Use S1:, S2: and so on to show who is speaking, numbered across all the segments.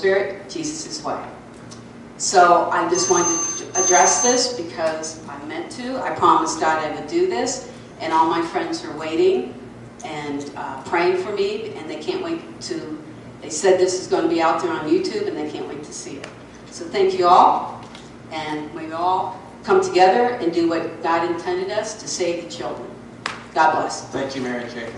S1: Spirit, Jesus' way. So I just wanted to address this because I meant to. I promised God I would do this, and all my friends are waiting and uh, praying for me, and they can't wait to. They said this is going to be out there on YouTube, and they can't wait to see it. So thank you all, and we all come together and do what God intended us to save the children. God bless.
S2: Thank you, Mary Kay.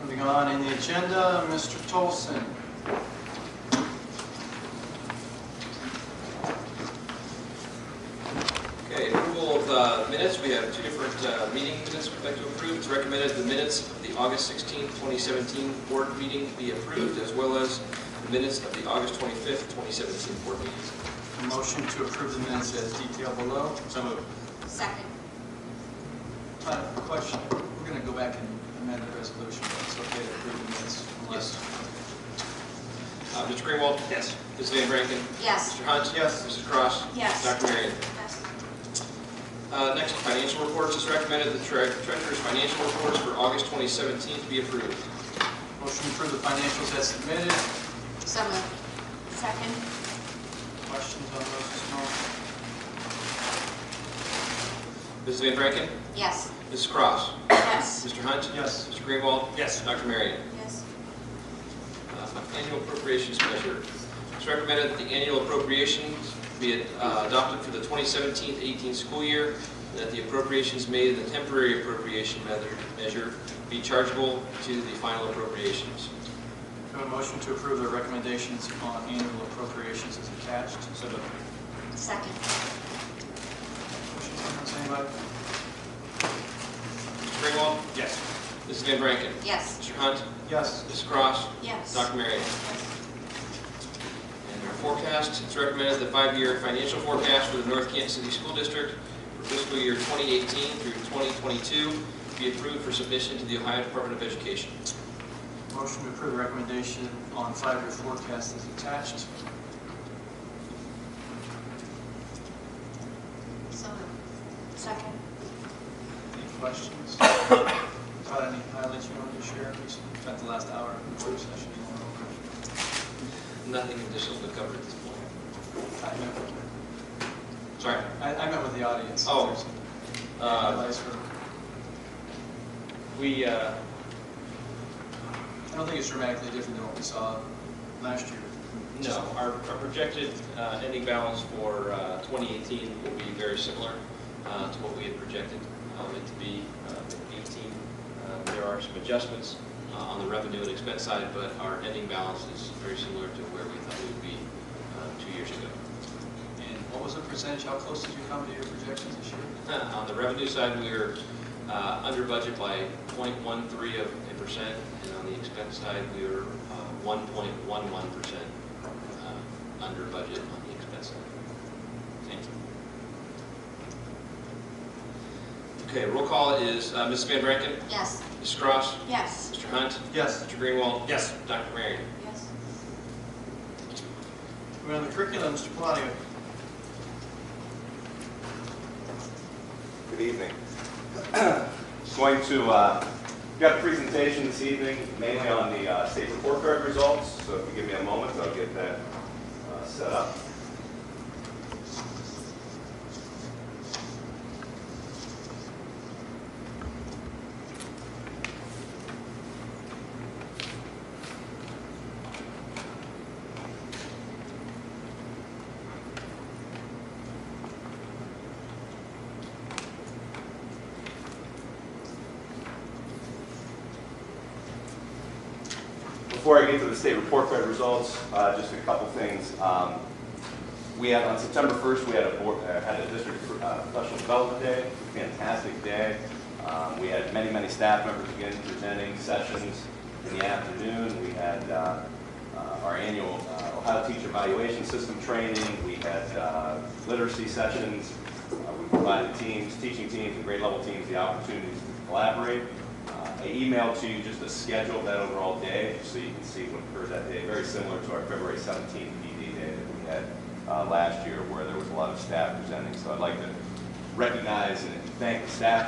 S2: Moving on in the agenda, Mr. Tolson.
S3: Okay, approval of uh, minutes, we have two different uh, meeting minutes we'd like to approve. It's recommended the minutes of the August 16, 2017 board meeting be approved, as well as the minutes of the August 25th, 2017 board meeting.
S2: A motion to approve the minutes as detailed below.
S3: So moved.
S1: Second.
S2: Uh, Question, we're going to go back and amend the resolution, but it's okay to approve the minutes? unless-
S3: Uh, Mr. Greenwald? Yes. Ms. Van Branken?
S1: Yes.
S3: Mr. Hunt?
S2: Yes.
S3: Mrs. Cross?
S1: Yes.
S3: Dr. Marion? Uh, Next, financial reports, it's recommended the tre- treasurer's financial reports for August 2017 to be approved.
S2: Motion to approve the financials as submitted.
S1: So Second.
S2: Questions on those this
S3: Ms. Van Branken?
S1: Yes.
S3: Mrs. Cross?
S1: Yes.
S3: Mr. Hunt?
S2: Yes.
S3: Mr. Greenwald?
S2: Yes.
S3: Dr. Marion?
S1: Yes.
S3: Uh, Annual appropriations measure. It's recommended that the annual appropriations be uh, adopted for the 2017-18 school year, and that the appropriations made in the temporary appropriation method- measure be chargeable to the final appropriations.
S2: Have a motion to approve the recommendations on annual appropriations as attached. So moved.
S1: Second.
S2: Questions, comments, anybody?
S3: Mr. Greenwald?
S2: Yes.
S3: Mrs. Van Branken?
S1: Yes.
S3: Mr. Hunt?
S2: Yes.
S3: Mrs. Cross?
S1: Yes.
S3: Dr. Marion? And our forecast, it's recommended the five-year financial forecast for the North Kansas City School District for fiscal year 2018 through 2022 be approved for submission to the Ohio Department of Education.
S2: Motion to approve the recommendation on five-year forecast is attached.
S1: So Second.
S2: Any questions? Todd, any highlights you wanted to share? We spent the last hour in the work session.
S3: Nothing additional to cover at this point.
S2: I met with-
S3: Sorry.
S2: I I met with the audience.
S3: Oh.
S2: There's some
S3: Uh,
S2: Highlights for,
S3: We, uh,
S2: I don't think it's dramatically different than what we saw last year.
S3: no, our our projected uh, ending balance for uh, 2018 will be very similar uh, to what we had projected um, it to be uh, in 18. Uh, There are some adjustments uh, on the revenue and expense side, but our ending balance is very similar to where we thought we would be uh, two years ago.
S2: And what was the percentage? How close did you come to your projections this year?
S3: On the revenue side, we are uh, under budget by 0.13 of a percent, and on the expense side, we are uh, 1.11 percent uh, under budget on the expense side. Thank you. Okay, roll call is uh, Ms. Van Branken,
S1: Yes.
S3: Ms. Cross,
S1: Yes.
S3: Mr. Hunt,
S2: Yes.
S3: Mr. Greenwald,
S2: Yes.
S3: Dr. Marion.
S1: Yes.
S2: We're on the curriculum, Mr. Palladio.
S4: Good evening. Just going to, uh, we've got a presentation this evening mainly on the uh, state report card results, so if you give me a moment, I'll get that uh, set up. Before I get to the state report card results, uh, just a couple things. Um, We had, on September 1st, we had a board, uh, had a district uh, professional development day, fantastic day. Um, We had many, many staff members again presenting sessions in the afternoon. We had uh, uh, our annual uh, Ohio Teacher Evaluation System training. We had uh, literacy sessions. Uh, We provided teams, teaching teams and grade level teams the opportunities to collaborate. Uh, I emailed to you just a schedule of that overall day, so you can see what occurred that day, very similar to our February 17th PD day that we had uh, last year, where there was a lot of staff presenting. So I'd like to recognize and thank the staff